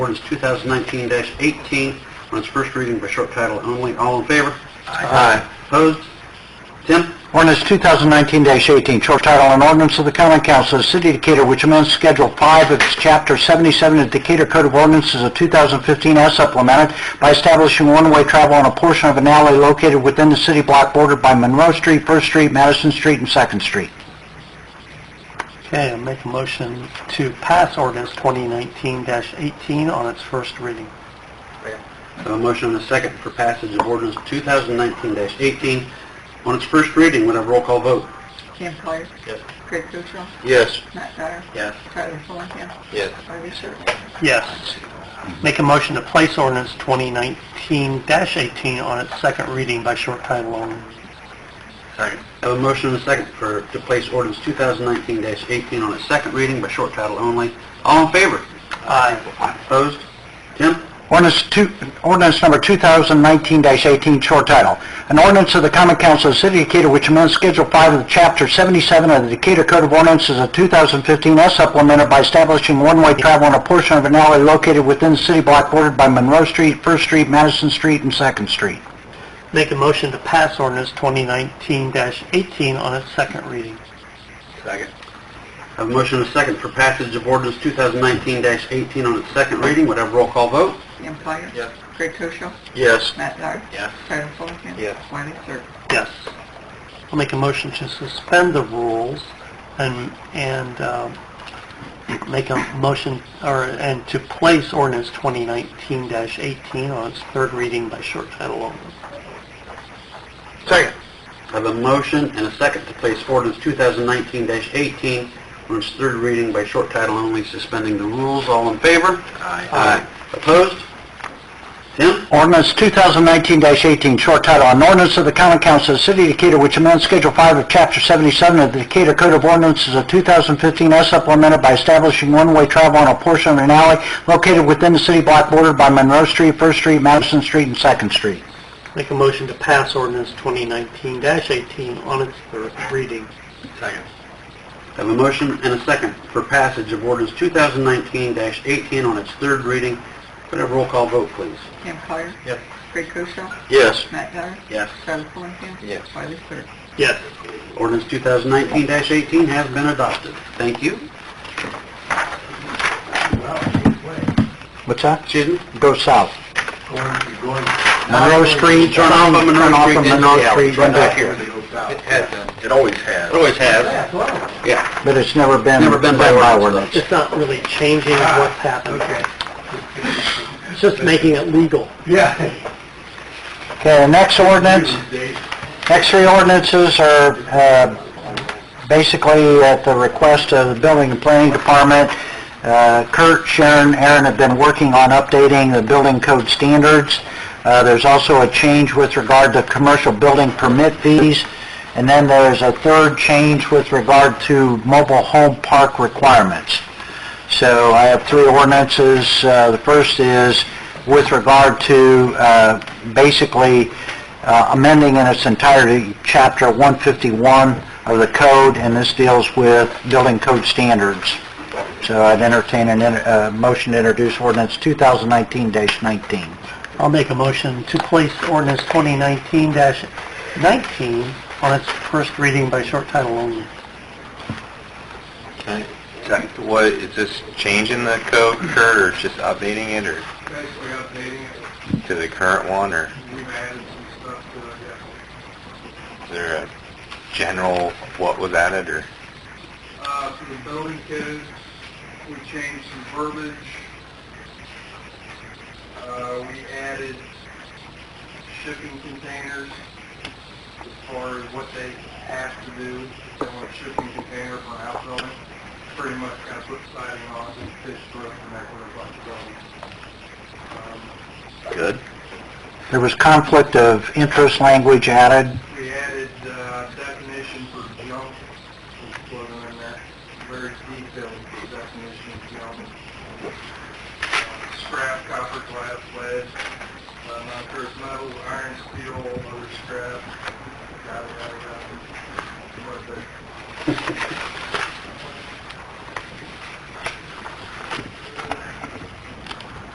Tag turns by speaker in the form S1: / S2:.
S1: Ordinance 2019-18 on its first reading by short title only. All in favor?
S2: Aye.
S1: Opposed? Tim?
S2: Uh, Ordinance 2019-18, short title, an ordinance of the common council of the city of Decatur which amends Schedule 5 of its Chapter 77 of Decatur Code of Ordinances of 2015 as supplemented by establishing one-way travel on a portion of an alley located within the city block bordered by Monroe Street, First Street, Madison Street, and Second Street.
S3: Okay, I make a motion to pass ordinance 2019-18 on its first reading.
S1: I have A motion and a second for passage of ordinance 2019-18 on its first reading. We'll have roll call vote.
S4: Cam Collier.
S1: Yes.
S4: Craig Koshaw.
S1: Yes.
S4: Matt Dyer.
S1: Yes.
S4: Tyler Fulenkamp.
S1: Yes.
S4: Wiley Sir.
S3: Yes. Make a motion to place ordinance 2019-18 on its second reading by short title only.
S1: Second. I have a motion and a second for, to place ordinance 2019-18 on its second reading by short title only. All in favor?
S3: Aye.
S1: Opposed? Tim?
S2: Ordinance two, ordinance number 2019-18, short title. An ordinance of the common council of the city of Decatur which amends Schedule 5 of the Chapter 77 of the Decatur Code of Ordinances of 2015 as supplemented by establishing one-way travel on a portion of an alley located within the city block bordered by Monroe Street, First Street, Madison Street, and Second Street.
S3: Make a motion to pass ordinance 2019-18 on its second reading.
S1: Second. I have a motion and a second for passage of ordinance 2019-18 on its second reading. Would have roll call vote?
S4: Cam Collier.
S1: Yes.
S4: Craig Koshaw.
S1: Yes.
S4: Matt Dyer.
S1: Yes.
S4: Tyler Fulenkamp.
S1: Yes.
S4: Wiley Sir.
S3: Yes. I'll make a motion to suspend the rules and, and um, make a motion, or, and to place ordinance 2019-18 on its third reading by short title only.
S1: Second. I have a motion and a second to place ordinance 2019-18 on its third reading by short title only, suspending the rules. All in favor? Aye. Aye. Opposed? Tim?
S2: Ordinance 2019-18, short title, an ordinance of the common council of the city of Decatur which amends Schedule 5 of Chapter 77 of the Decatur Code of Ordinances of 2015 as supplemented by establishing one-way travel on a portion of an alley located within the city block bordered by Monroe Street, First Street, Madison Street, and Second Street.
S3: Make a motion to pass ordinance 2019-18 on its third reading.
S1: Second. I have a motion and a second for passage of ordinance 2019-18 on its third reading. Would have roll call vote, please?
S4: Cam Collier.
S1: Yes.
S4: Craig Koshaw.
S1: Yes.
S4: Matt Dyer.
S1: Yes.
S4: Tyler Fulenkamp.
S1: Yes.
S4: Wiley Sir.
S3: Yes.
S1: Ordinance 2019-18 has been adopted. Thank you.
S2: What's that?
S1: Susan?
S2: Go south.
S1: Monroe
S2: Monroe Street,
S1: Turn off of Monroe
S2: turn off
S1: Street
S2: of
S1: into
S2: Monroe
S1: the alley.
S2: Street,
S1: Right
S2: right
S1: back
S2: there.
S1: here.
S5: It has done. It always has.
S1: It always has. Yeah.
S2: but it's never been...
S1: Never been by ordinance.
S3: It's not really changing what's happened. It's just making it legal.
S5: Yeah.
S2: Okay, the next ordinance Next three ordinances are uh, basically at the request of the Building and Planning Department. Uh, Kurt, Sharon, Aaron have been working on updating the building code standards. Uh, There's also a change with regard to commercial building permit fees. And then there's a third change with regard to mobile home park requirements. So I have three ordinances. Uh, The first is with regard to uh, basically uh, amending in its entirety Chapter 151 of the code, and this deals with building code standards. So I'd entertain a motion to introduce ordinance 2019-19.
S3: I'll make a motion to place ordinance 2019-19 on its first reading by short title only.
S5: Okay. What, is this changing the code, Kurt, or just updating it, or
S6: Basically updating it,
S5: to the current one, or
S6: we've added some stuff to it, yeah.
S5: is there a general what was added, or?
S6: Uh, for the building codes, we changed some verbiage. Uh, we added shipping containers as far as what they have to do, if they want a shipping container for an outbuilding. Pretty much kind of put siding on it, and pitch roof, and that were a bunch of buildings. Um,
S5: Good.
S2: There was conflict of interest language added.
S6: We added uh, definition for junk, which wasn't in that very detailed definition of junk. Uh, Scrap, copper, glass, lead, uh, non-ferrous metals, iron, steel, other scrap, yada, yada, yada. What the-